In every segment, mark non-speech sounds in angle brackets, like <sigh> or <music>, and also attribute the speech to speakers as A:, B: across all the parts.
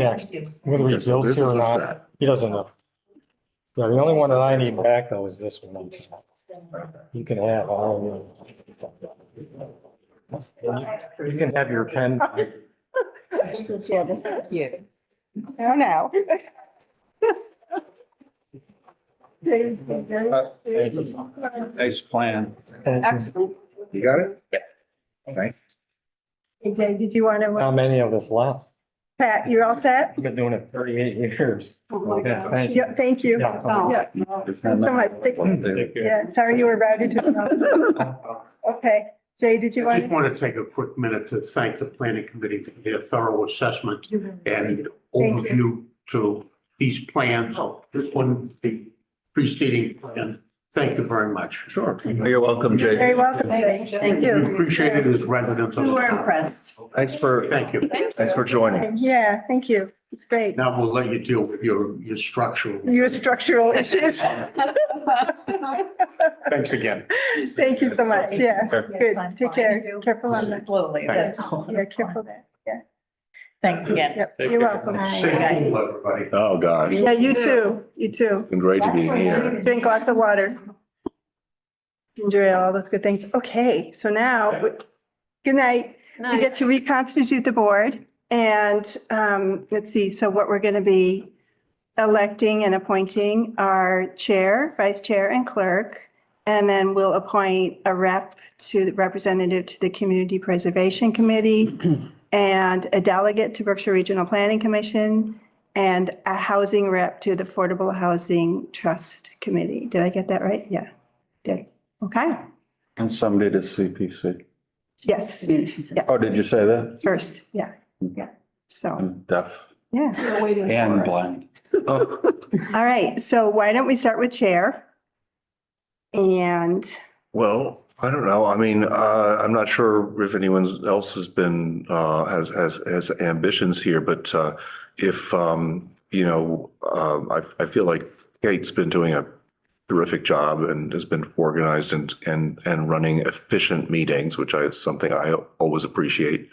A: Yeah, whether he
B: Okay, so
A: builds
B: this
A: here or
B: is a
A: not,
B: set.
A: he doesn't know. Yeah, the only one that I need back though is this one. You can have all of them. You can have your pen.
C: Yeah, this is cute. Oh, no.
D: Nice plan.
C: Excellent.
B: You got it?
E: Jay, did you want to,
A: How many of us left?
E: Pat, you're all set?
A: I've been doing it thirty-eight years.
C: Oh, my God.
A: Thank you.
E: Yeah, Thank you.
A: Yeah.
E: Yeah. Oh, So much. Yeah, sorry you were routed to.
C: <laughs>
E: Okay, Jay, did you want
F: I just
E: to?
F: want to take a quick minute to thank the planning committee for their thorough assessment and
E: Thank
F: overview to these plans. This one, the preceding plan. Thank you very much.
B: Sure.
D: You're welcome,
E: You're Very
D: Jay.
E: welcome, Jay. Thank
F: We
E: you.
F: appreciate it as residents of
C: We
F: the
C: were
F: town.
C: impressed.
D: Thanks for,
F: Thank you.
D: thanks for joining.
E: Yeah, thank you. It's great.
F: Now we'll let you deal with your, your structural.
E: Your structural issues.
F: Thanks again.
E: Thank you so much. Yeah, good.
C: Yes, I'm
E: Take
C: fine.
E: care. Careful on that.
C: Slowly, that's all.
E: Yeah, careful there.
C: Thanks again.
E: Yep, you're welcome.
F: Stay cool, everybody.
B: Oh, God. It's
E: Yeah, you too. You too.
B: been great to be here.
E: Drink lots of water. Enjoy all those good things. Okay, so now, good night. We get to reconstitute the board and, um, let's see, so what we're going to be electing and appointing are chair, vice chair and clerk. And then we'll appoint a rep to the representative to the Community Preservation Committee and a delegate to Berkshire Regional Planning Commission and a housing rep to the Affordable Housing Trust Committee. Did I get that right? Yeah. Did. Okay.
D: And somebody to CPC.
E: Yes,
D: Oh, did you say that?
E: first. Yeah. Yeah. So,
D: I'm deaf
E: yeah.
D: and blind. Oh.
E: All right, so why don't we start with chair? And
B: Well, I don't know. I mean, uh, I'm not sure if anyone else has been, uh, has, has, has ambitions here, but, uh, if, um, you know, um, I, I feel like Kate's been doing a terrific job and has been organized and, and, and running efficient meetings, which I, is something I always appreciate.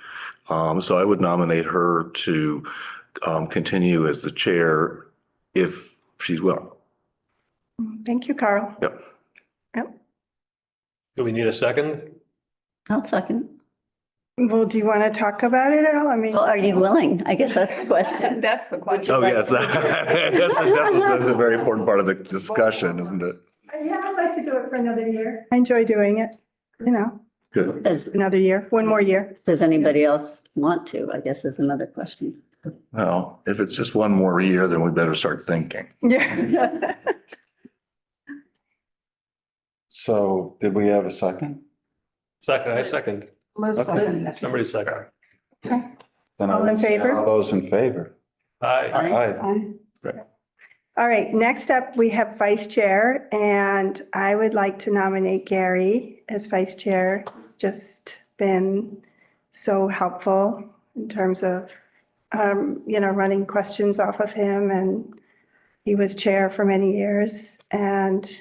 B: Um, so I would nominate her to, um, continue as the chair if she's willing.
E: thank you, Carl.
B: Yep.
G: Do we need a second?
H: I'll second.
E: Well, do you want to talk about it at all? I mean,
H: Well, are you willing? I guess that's the question.
C: <laughs> That's the question.
B: Oh, yes, <laughs> that's, definitely- that's a very important part of the discussion, isn't it?
E: yeah, I'd like to do it for another year. I enjoy doing it, you know,
B: Good.
H: Does,
E: another year, one more year. <laughs>
H: does anybody else want to? I guess is another question.
B: Well, if it's just one more year, then we better start thinking.
E: Yeah.
D: So did we have a second?
G: Second, I second. Somebody second.
D: Then I
E: All in
D: would say
E: favor?
D: All those in favor?
G: Aye.
D: Aye.
E: All right, next up, we have vice chair, and I would like to nominate Gary as vice chair. He's just been so helpful in terms of, um, you know, running questions off of him, and he was chair for many years, and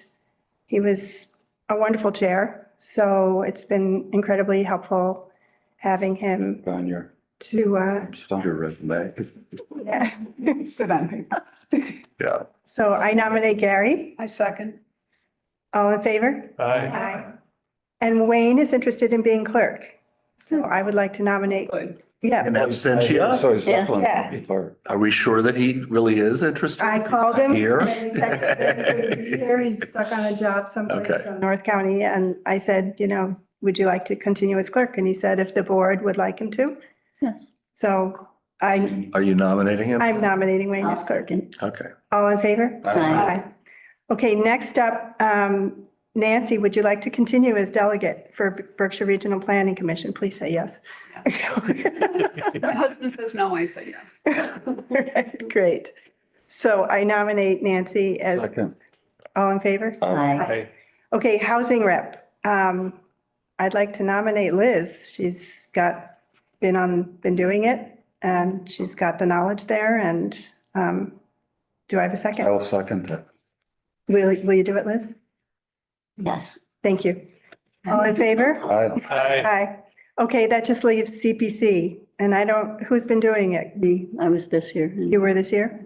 E: he was a wonderful chair. So it's been incredibly helpful having him
D: On your
E: to, uh, <laughs>
D: stump.
B: Your resume.
E: yeah.
C: Good on paper.
B: Yeah.
E: So I nominate Gary.
C: I second.
E: All in favor?
G: Aye.
E: And Wayne is interested in being clerk. So I would like to nominate,
C: Good.
E: yeah,
B: And absentia,
D: So he's
H: Yes.
D: definitely
E: Yeah.
D: the clerk.
B: are we sure that he really is interested?
E: I called him.
B: Here?
E: and <laughs> he texted me, Here he's stuck on a job someplace
B: Okay.
E: in North County. And I said, you know, would you like to continue as clerk? And he said, if the board would like him to.
H: Yes.
E: So I,
B: Are you nominating him?
E: I'm nominating Wayne
H: I'll
E: as clerk.
H: second.
B: Okay.
E: All in favor?
H: Aye.
E: Okay, next up, um, Nancy, would you like to continue as delegate for Berkshire Regional Planning Commission? Please say yes. <laughs>
B: <laughs>
I: My husband says no, I say yes.
E: <laughs> Great. So I nominate Nancy as,
D: Second.
E: all in favor?
H: Aye.
G: Aye.
E: Okay, housing rep. Um, I'd like to nominate Liz. She's got, been on, been doing it and she's got the knowledge there and, um, do I have a
D: I
E: second?
D: will second it.
E: Will, will you do it, Liz?
H: Yes.
E: Oh, Thank you. All in favor?
D: Aye.
G: Aye.
E: Aye. Okay, that just leaves CPC.
H: And I don't, who's been doing it?
E: Me, I was this year. and-
H: You were this year?